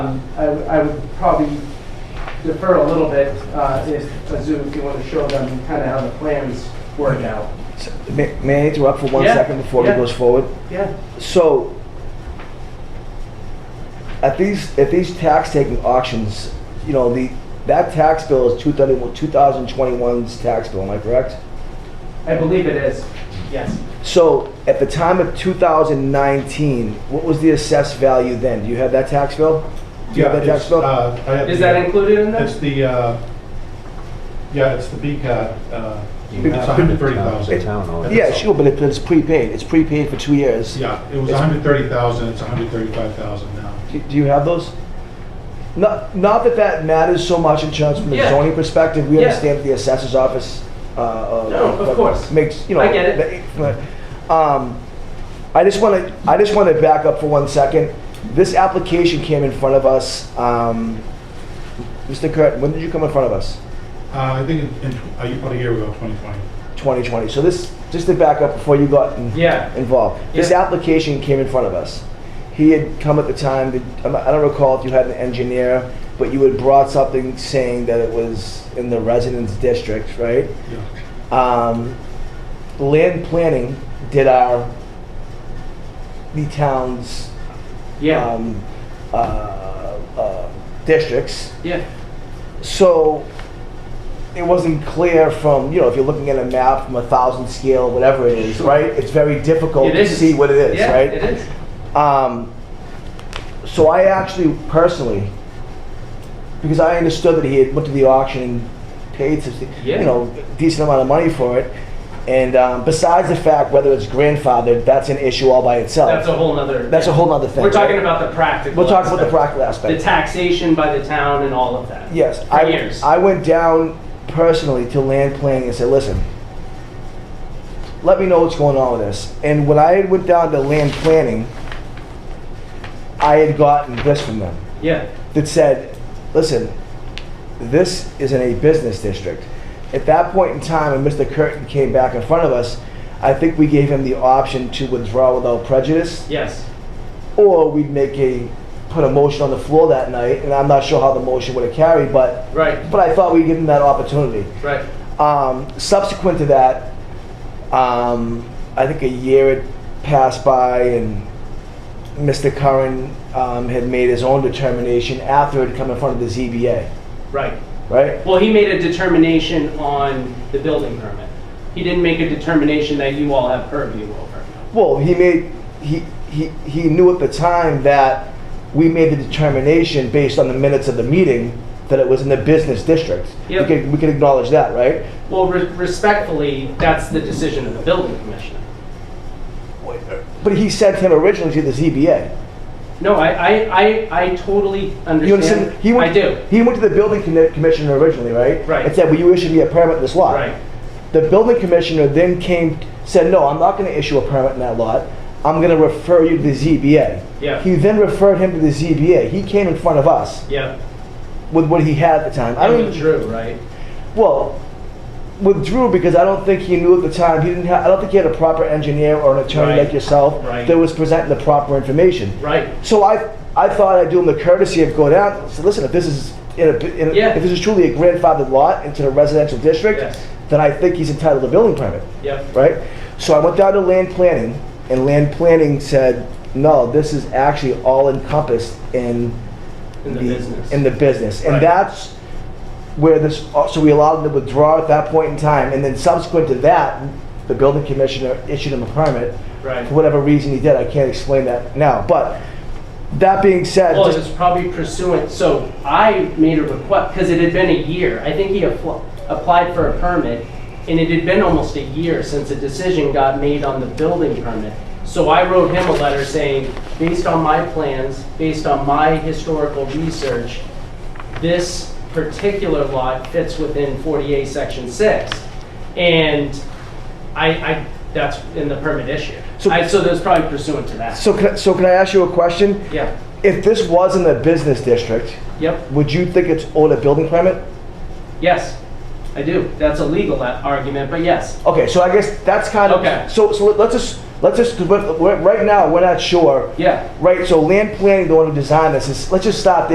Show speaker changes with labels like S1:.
S1: Um, I w- I would probably defer a little bit, uh, if, uh, Zoo, if you want to show them kind of how the plans work out.
S2: May, may I interrupt for one
S1: Yeah,
S2: second before
S1: yeah.
S2: he goes forward?
S1: Yeah.
S2: So, at these at these tax taking auctions, you know the that tax bill is 2021 2021's tax bill. Am I correct?
S1: I believe it is, yes.
S2: So, at the time of 2019, what was the assessed value then? Do you have that tax bill? Do you
S3: Yeah,
S2: have that tax
S3: it's,
S2: bill?
S3: uh, I have
S1: Is
S3: the-
S1: that included in
S3: It's
S1: this?
S3: the, uh, yeah, it's the BCAT, uh,
S2: Big-
S3: it's 130,000.
S4: Town owns.
S2: yeah, sure, but it, it's prepaid. It's prepaid for two years.
S3: Yeah, it was 130,000, it's 135,000 now.
S2: Do do you have those? Not, not that that matters so much in terms from a
S1: Yeah.
S2: zoning perspective, we
S1: Yeah.
S2: understand that the assessor's office, uh, uh.
S1: No, of
S2: what
S1: course.
S2: Makes, you know.
S1: I get it.
S2: the- Um, I just wanna, I just wanna back up for one second. This application came in front of us, um, Mr. Kurt, when did you come in front of us?
S3: Uh, I think in- in, tw- uh, about a year ago, 2020.
S2: Twenty twenty, so this, just to back up before you got in-
S1: Yeah,
S2: involved. This
S1: Yeah.
S2: application came in front of us. He had come at the time, that- I'm not- I don't recall if you had an engineer, but you had brought something saying that it was in the residence district, right?
S3: Yeah.
S2: Um, Land planning did our, the town's,
S1: yeah,
S2: um, uh, uh, districts.
S1: yeah.
S2: So it wasn't clear from, you know, if you're looking at a map from a thousand scale, whatever it is,
S1: Sure.
S2: right? It's very difficult
S1: It
S2: to
S1: is.
S2: see what it is,
S1: Yeah,
S2: right?
S1: it is.
S2: Um, so I actually personally, because I understood that he had went to the auction and paid some,
S1: Yeah.
S2: you know, decent amount of money for it. And um, besides the fact whether it's grandfathered, that's an issue all by itself.
S1: That's a whole nother.
S2: That's a whole other thing.
S1: We're talking
S2: right?
S1: about the practical.
S2: We'll talk about the
S1: aspect.
S2: practical aspect.
S1: The taxation by the town and all of that.
S2: Yes,
S1: For
S2: I,
S1: years.
S2: I went down personally to land planning and said, listen, let me know what's going on with this. And when I went down to land planning, I had gotten this from them
S1: Yeah,
S2: that said, listen, this is in a business district. At that point in time, when Mr. Curtin came back in front of us, I think we gave him the option to withdraw without prejudice
S1: yes.
S2: or we'd make a, put a motion on the floor that night, and I'm not sure how the motion would have carried, but,
S1: Right,
S2: but I thought we'd give them that opportunity.
S1: right.
S2: Um, subsequent to that, um, I think a year had passed by, and Mr. Curran um, had made his own determination after it had come in front of the ZBA,
S1: Right.
S2: right?
S1: Well, he made a determination on the building permit. He didn't make a determination that you all have purview over.
S2: Well, he made he he he knew at the time that we made the determination based on the minutes of the meeting that it was in the business district.
S1: Yep.
S2: We can we can acknowledge that, right?
S1: Well, re- respectfully, that's the decision of the building commissioner.
S2: But he sent him originally to the ZBA.
S1: No, I, I, I, I totally
S2: You understand?
S1: understand.
S2: He went,
S1: I do.
S2: He went to the building commi- commissioner originally, right?
S1: Right.
S2: And said, "Will you issue me a permit in this lot?"
S1: Right,
S2: The building commissioner then came, said, no, I'm not gonna issue a permit in that lot. I'm gonna refer you to the ZBA.
S1: Yeah.
S2: He then referred him to the ZBA. He came in front of us
S1: yeah.
S2: with what he had at the time. I
S1: And
S2: don't even,
S1: withdrew, right?
S2: well, withdrew because I don't think he knew at the time, he didn't have, I don't think he had a proper engineer or an attorney
S1: Right.
S2: like yourself
S1: Right.
S2: that was presenting the proper information.
S1: Right,
S2: So I, I thought I'd do him the courtesy of going out, and say, listen, if this is, in a, in a-
S1: Yeah.
S2: if this is truly a grandfathered lot into the residential district,
S1: Yes.
S2: then I think he's entitled to building permit
S1: yep,
S2: right? So I went down to land planning, and land planning said, no, this is actually all encompassed in
S1: in the business.
S2: in the business, and
S1: Right.
S2: that's where this. uh, So we allowed them to withdraw at that point in time, and then subsequent to that, the building commissioner issued him a permit
S1: Right.
S2: for whatever reason he did. I can't explain that now, but that being said,
S1: Well, it was
S2: just-
S1: probably pursuant, so I made a request, because it had been a year. I think he appl- applied for a permit, and it had been almost a year since a decision got made on the building permit. So I wrote him a letter saying, based on my plans, based on my historical research, this particular lot fits within 48, Section 6. And I, I, that's in the permit issue.
S2: So-
S1: I- So that's probably pursuant to that.
S2: so can I, so can I ask you a question?
S1: Yeah,
S2: If this was in the business district,
S1: yep.
S2: would you think it's owed a building permit?
S1: Yes, I do. That's a legal a- argument, but yes.
S2: Okay, so I guess that's kind of
S1: Okay.
S2: so. So let's just let's just because we're, we're, right now we're not sure.
S1: Yeah.
S2: Right. So land planning, the one who designed this, is let's just stop there.